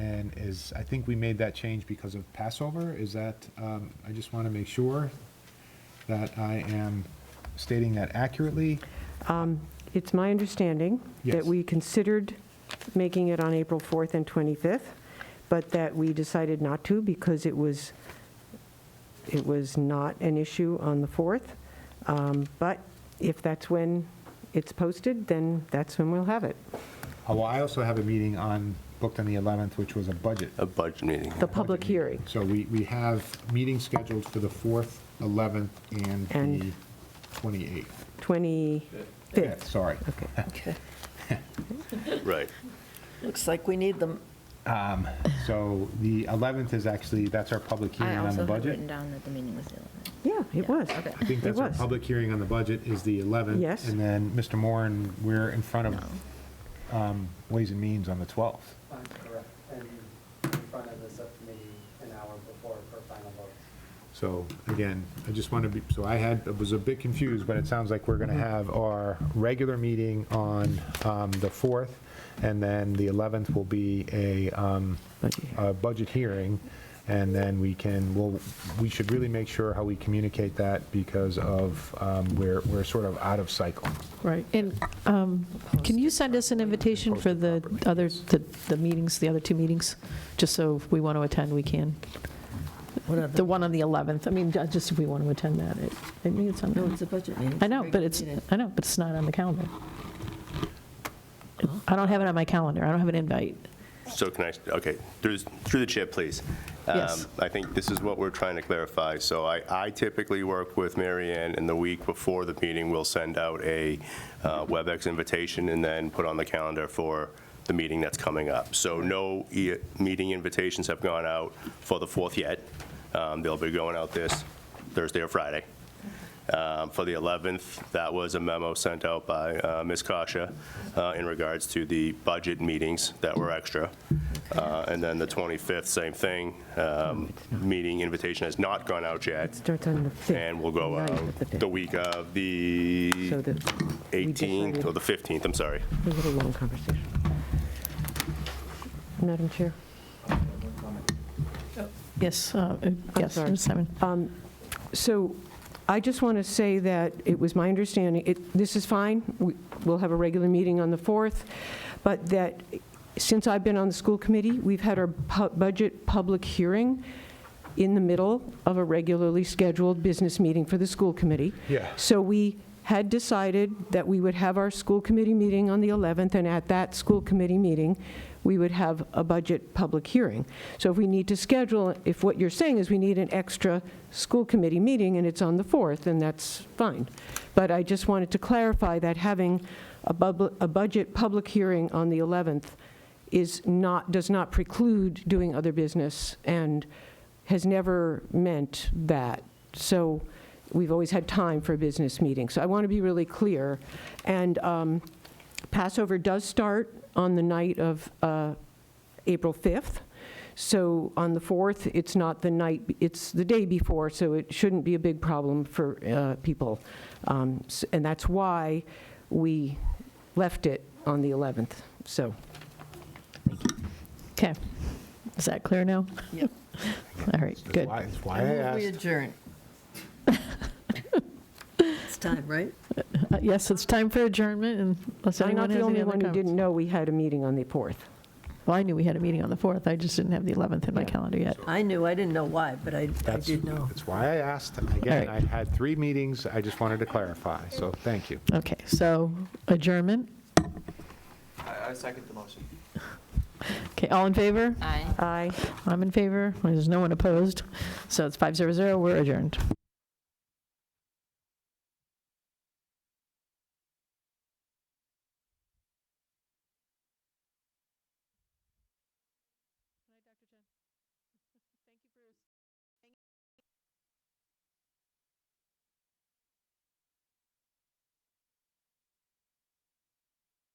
is, I think we made that change because of Passover, is that, um, I just want to make sure that I am stating that accurately. It's my understanding Yes. that we considered making it on April 4th and 25th, but that we decided not to because it was, it was not an issue on the 4th. Um, But if that's when it's posted, then that's when we'll have it. Uh, Well, I also have a meeting on, booked on the 11th, which was a budget. a budget meeting. The public hearing. So we, we have meetings scheduled for the 4th, 11th, and the And- 28th. Yeah, 25th. Sorry. Okay. Right. Looks like we need them. So the 11th is actually, that's our public I hearing on also the have budget. written down that the meeting was the 11th. Yeah, it was. Okay. I think that's It our was. public hearing on the budget is the 11th. Yes. And then, Mr. Moran, we're in front of um, Ways and Means on the 12th. I'm correct, and in front of the subcommittee an hour before for final votes. So again, I just want to be, so I had, I was a bit confused, but it sounds like we're going Mm-hmm. to have our regular meeting on um, the 4th, and then the 11th will be a, um, Budget hearing. a budget hearing, and then we can, well, we should really make sure how we communicate that because of, um, we're, we're sort of out of cycle. Right. And um, can you send us an invitation for the other, the the meetings, the other two meetings? Just so if we want to attend, we can. The one on the 11th, I mean, ju- just if we want to attend that. It- I think it's on, No, the- it's a budget meeting. I know, but it's, I know, but it's not on the calendar. I don't have it on my calendar. I don't have an invite. So can I, okay, through, through the chair, please. Um, Yes. I think this is what we're trying to clarify. So I, I typically work with Mary Ann, and the week before the meeting, we'll send out a uh, WebEx invitation and then put on the calendar for the meeting that's coming up. So no e- meeting invitations have gone out for the 4th yet. Um, They'll be going out this Thursday or Friday. Um, For the 11th, that was a memo sent out by uh, Ms. Kasha uh, in regards to the budget meetings that were extra. Uh, And then the 25th, same thing. Um, Meeting invitation has not gone out yet, Starts on the 5th. and will go ninth out of the fifth. the week of the So the, 18th or decided- the 15th, I'm sorry. a little long conversation. Madam Chair? Yes, uh, yes, sorry. Uh, Simon. So I just want to say that it was my understanding, it- this is fine, we- we'll have a regular meeting on the 4th, but that since I've been on the school committee, we've had our pu- budget public hearing in the middle of a regularly scheduled business meeting for the school committee. Yeah. So we had decided that we would have our school committee meeting on the 11th, and at that school committee meeting, we would have a budget public hearing. So if we need to schedule, if what you're saying is we need an extra school committee meeting, and it's on the 4th, then that's fine. But I just wanted to clarify that having a bubl- a budget public hearing on the 11th is not, does not preclude doing other business, and has never meant that. So we've always had time for a business meeting. So I want to be really clear. And um, Passover does start on the night of uh, April 5th. So on the 4th, it's not the night, it's the day before, so it shouldn't be a big problem for uh, people. Um, s- And that's why we left it on the 11th. So Okay. Is that clear now? Yep. All right, good. Why- That's why I I move we asked. adjourn. It's time, right? Uh, Yes, it's time for adjournment, and unless I'm not anyone has the any only other one who didn't comments. know we had a meeting on the 4th. Well, I knew we had a meeting on the 4th, I just didn't have the 11th in my Yeah. calendar yet. I knew, I didn't know why, but I, I That's- did know. That's why I asked. And Again, I Alright. had three meetings, I just wanted to clarify, so thank you. Okay, so adjournment. I, I second the motion. Okay, all in favor? Aye. Aye. I'm in favor, there's no one opposed, so it's 500, we're adjourned.